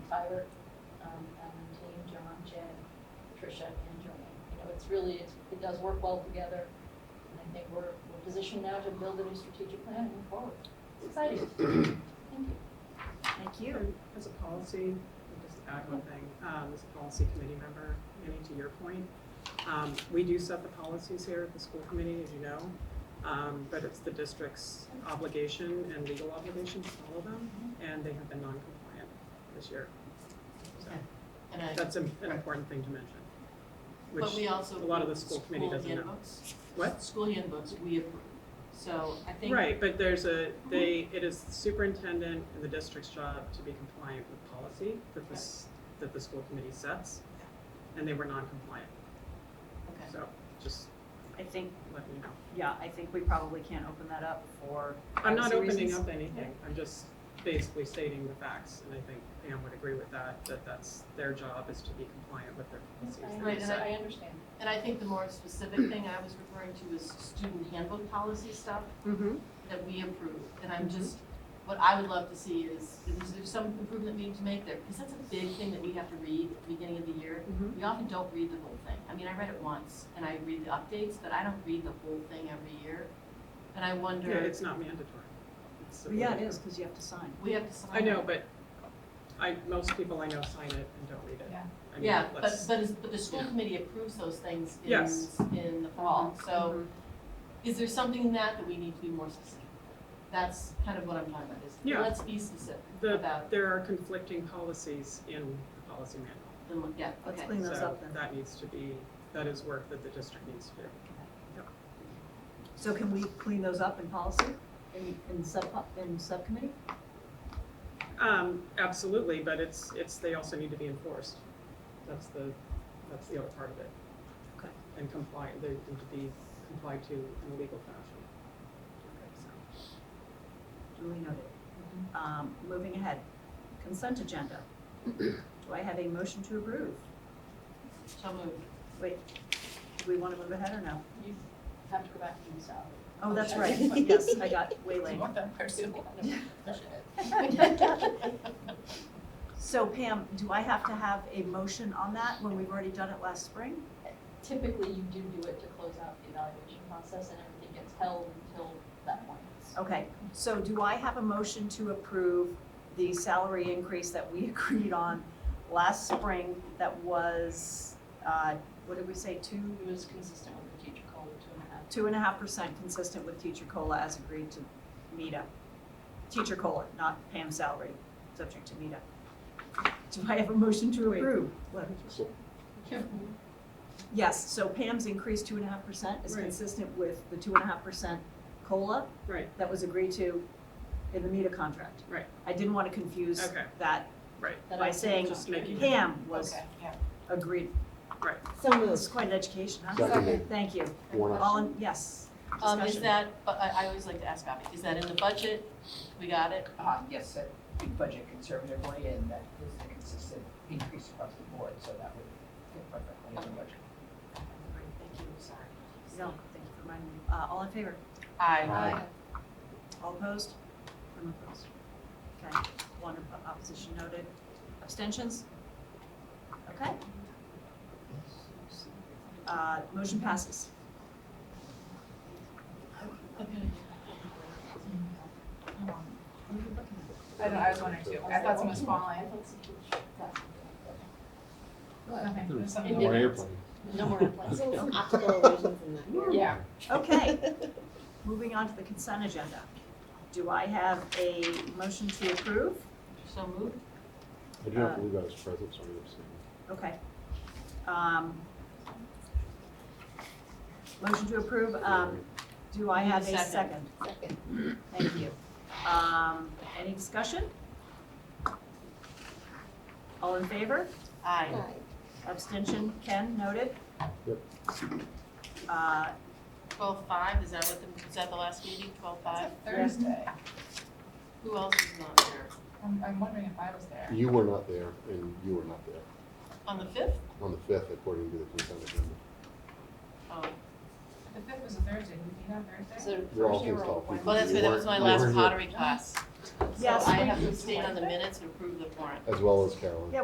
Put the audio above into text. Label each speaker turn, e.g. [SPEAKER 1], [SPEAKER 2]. [SPEAKER 1] fire, um, Alan, team, John, Jen, Tricia, and Joanne. You know, it's really, it's, it does work well together, and I think we're, we're positioned now to build a new strategic plan and move forward. It's exciting. Thank you.
[SPEAKER 2] Thank you.
[SPEAKER 3] And As a policy, I'll just add one thing, um, as a policy committee member, Annie, to your point, um, we do set the policies here at the school committee, as you know, um, but it's the district's obligation and legal obligation to follow them,
[SPEAKER 2] Mm-hmm.
[SPEAKER 3] and they have been non-compliant this year. So
[SPEAKER 2] And I,
[SPEAKER 3] that's an an important thing to mention,
[SPEAKER 2] but we
[SPEAKER 3] which,
[SPEAKER 2] also.
[SPEAKER 3] a lot of the school committee doesn't know.
[SPEAKER 2] handbooks.
[SPEAKER 3] what?
[SPEAKER 2] School handbooks, we approve. So I think.
[SPEAKER 3] Right, but there's a, they, it is superintendent and the district's job to be compliant with policy that this, that the school committee sets. And they were non-compliant,
[SPEAKER 2] Okay.
[SPEAKER 3] so just
[SPEAKER 4] I think,
[SPEAKER 3] let me know.
[SPEAKER 4] yeah, I think we probably can't open that up for
[SPEAKER 3] I'm not
[SPEAKER 4] privacy
[SPEAKER 3] opening
[SPEAKER 4] reasons.
[SPEAKER 3] up anything, I'm just basically stating the facts, and I think Pam would agree with that, that that's, their job is to be compliant with their policies. that
[SPEAKER 2] Right,
[SPEAKER 3] they
[SPEAKER 2] and
[SPEAKER 3] set.
[SPEAKER 1] I understand.
[SPEAKER 2] And I think the more specific thing I was referring to is student handbook policy stuff
[SPEAKER 3] Mhm.
[SPEAKER 2] that we approve. And
[SPEAKER 3] Mm-hmm.
[SPEAKER 2] I'm just, what I would love to see is, is there some improvement we need to make there? Because that's a big thing that we have to read at the beginning of the year.
[SPEAKER 3] Mhm.
[SPEAKER 2] We often don't read the whole thing. I mean, I read it once and I read the updates, but I don't read the whole thing every year. And I wonder.
[SPEAKER 3] Yeah, it's not mandatory. It's a-
[SPEAKER 4] Yeah, it is, because you have to sign.
[SPEAKER 2] We have to sign.
[SPEAKER 3] I know,
[SPEAKER 2] it.
[SPEAKER 3] but I, most people I know sign it and don't read it.
[SPEAKER 1] Yeah.
[SPEAKER 3] I mean,
[SPEAKER 2] Yeah, but,
[SPEAKER 3] let's-
[SPEAKER 2] but, is- but the school
[SPEAKER 3] yeah.
[SPEAKER 2] committee approves those things in,
[SPEAKER 3] Yes.
[SPEAKER 2] in the fall.
[SPEAKER 4] Mm-hmm.
[SPEAKER 2] So
[SPEAKER 3] Mhm.
[SPEAKER 2] is there something in that that we need to be more specific? That's kind of what I'm talking about, is
[SPEAKER 3] Yeah.
[SPEAKER 2] let's be specific
[SPEAKER 3] The-
[SPEAKER 2] about
[SPEAKER 3] There are conflicting policies in the policy manual.
[SPEAKER 2] the, yeah,
[SPEAKER 4] Let's
[SPEAKER 2] okay.
[SPEAKER 4] clean those
[SPEAKER 3] so
[SPEAKER 4] up then.
[SPEAKER 3] That needs to be, that is work that the district needs to do.
[SPEAKER 4] So can we clean those up in policy, in, in sub, in subcommittee?
[SPEAKER 3] Um, absolutely, but it's, it's, they also need to be enforced. That's the, that's the other part of it.
[SPEAKER 4] Okay.
[SPEAKER 3] And comply, they need to be complied to in a legal fashion. So,
[SPEAKER 4] Duly noted. Um, moving ahead, consent agenda. Do I have a motion to approve?
[SPEAKER 2] So moved.
[SPEAKER 4] Wait, do we want to move ahead or no?
[SPEAKER 1] You have to go back to the salary.
[SPEAKER 4] Oh, that's right, yes, I got way late.
[SPEAKER 1] More than personal.
[SPEAKER 4] So Pam, do I have to have a motion on that when we've already done it last spring?
[SPEAKER 1] Typically, you do do it to close out the evaluation process, and everything gets held until that point.
[SPEAKER 4] Okay, so do I have a motion to approve the salary increase that we agreed on last spring that was, uh, what did we say, two,
[SPEAKER 1] It was consistent with the teacher call, two and a half.
[SPEAKER 4] two and a half percent consistent with teacher COLA as agreed to Meta? Teacher COLA, not Pam's salary, subject to Meta. Do I have a motion to
[SPEAKER 3] Wait.
[SPEAKER 4] approve? What?
[SPEAKER 1] Yeah.
[SPEAKER 4] Yes, so Pam's increased two and a half percent is
[SPEAKER 3] Right.
[SPEAKER 4] consistent with the two and a half percent COLA
[SPEAKER 3] Right,
[SPEAKER 4] that was agreed to in the Meta contract.
[SPEAKER 3] Right.
[SPEAKER 4] I didn't want to confuse
[SPEAKER 3] Okay.
[SPEAKER 4] that
[SPEAKER 3] right,
[SPEAKER 1] That
[SPEAKER 4] by
[SPEAKER 1] I-
[SPEAKER 4] saying
[SPEAKER 3] just making it.
[SPEAKER 4] Pam was
[SPEAKER 1] Okay, yeah.
[SPEAKER 4] agreed.
[SPEAKER 3] Right.
[SPEAKER 4] So It's quite an education, huh?
[SPEAKER 5] Seconded.
[SPEAKER 4] Thank you.
[SPEAKER 5] One
[SPEAKER 4] All in, yes.
[SPEAKER 2] Um, is
[SPEAKER 4] Discussion.
[SPEAKER 2] that, but I, I always like to ask Bobby, is that in the budget? We got it?
[SPEAKER 6] Uh, yes, that we budget conservatively and that is a consistent increase across the board, so that would fit perfectly in the budget.
[SPEAKER 4] Thank you, sorry. No, thank you for reminding me. Uh, all in favor?
[SPEAKER 2] Aye.
[SPEAKER 5] Aye.
[SPEAKER 4] All opposed? I'm opposed. Okay, one op- opposition noted. Abstentions? Okay. Uh, motion passes.
[SPEAKER 7] I don't know, I was wondering too. I thought someone was
[SPEAKER 1] I
[SPEAKER 7] falling.
[SPEAKER 1] thought some teacher- that's-
[SPEAKER 7] Okay, there's someone-
[SPEAKER 1] More
[SPEAKER 5] airplane.
[SPEAKER 1] No more implants.
[SPEAKER 7] Yeah.
[SPEAKER 4] Okay, moving on to the consent agenda. Do I have a motion to approve?
[SPEAKER 2] So moved?
[SPEAKER 5] I do not believe I was present, so I'm abstaining.
[SPEAKER 4] Okay. Um, Motion to approve, um, do I have a second?
[SPEAKER 2] Second.
[SPEAKER 1] Second.
[SPEAKER 4] Thank you. Um, any discussion? All in favor?
[SPEAKER 2] Aye.
[SPEAKER 4] Abstention, Ken, noted.
[SPEAKER 5] Yep.
[SPEAKER 4] Uh,
[SPEAKER 2] Twelve five, is that what the, is that the last meeting, twelve five?
[SPEAKER 7] Thursday.
[SPEAKER 2] Who else is not there?
[SPEAKER 7] I'm, I'm wondering if I was there.
[SPEAKER 5] You were not there, and you were not there
[SPEAKER 2] On the fifth?
[SPEAKER 5] on the fifth, according to the consent agenda.
[SPEAKER 2] Oh,
[SPEAKER 7] The fifth was a Thursday. Did you meet on Thursday?
[SPEAKER 1] So
[SPEAKER 5] We're all
[SPEAKER 1] Thursday, we're all
[SPEAKER 5] pissed
[SPEAKER 1] Wednesday.
[SPEAKER 5] off.
[SPEAKER 2] well, that's, that was my last
[SPEAKER 5] You weren't here.
[SPEAKER 2] pottery class. So
[SPEAKER 4] Yes,
[SPEAKER 2] I
[SPEAKER 4] we
[SPEAKER 2] have to
[SPEAKER 4] do.
[SPEAKER 2] abstain on the minutes and approve the warrant.
[SPEAKER 5] as well as Carolyn.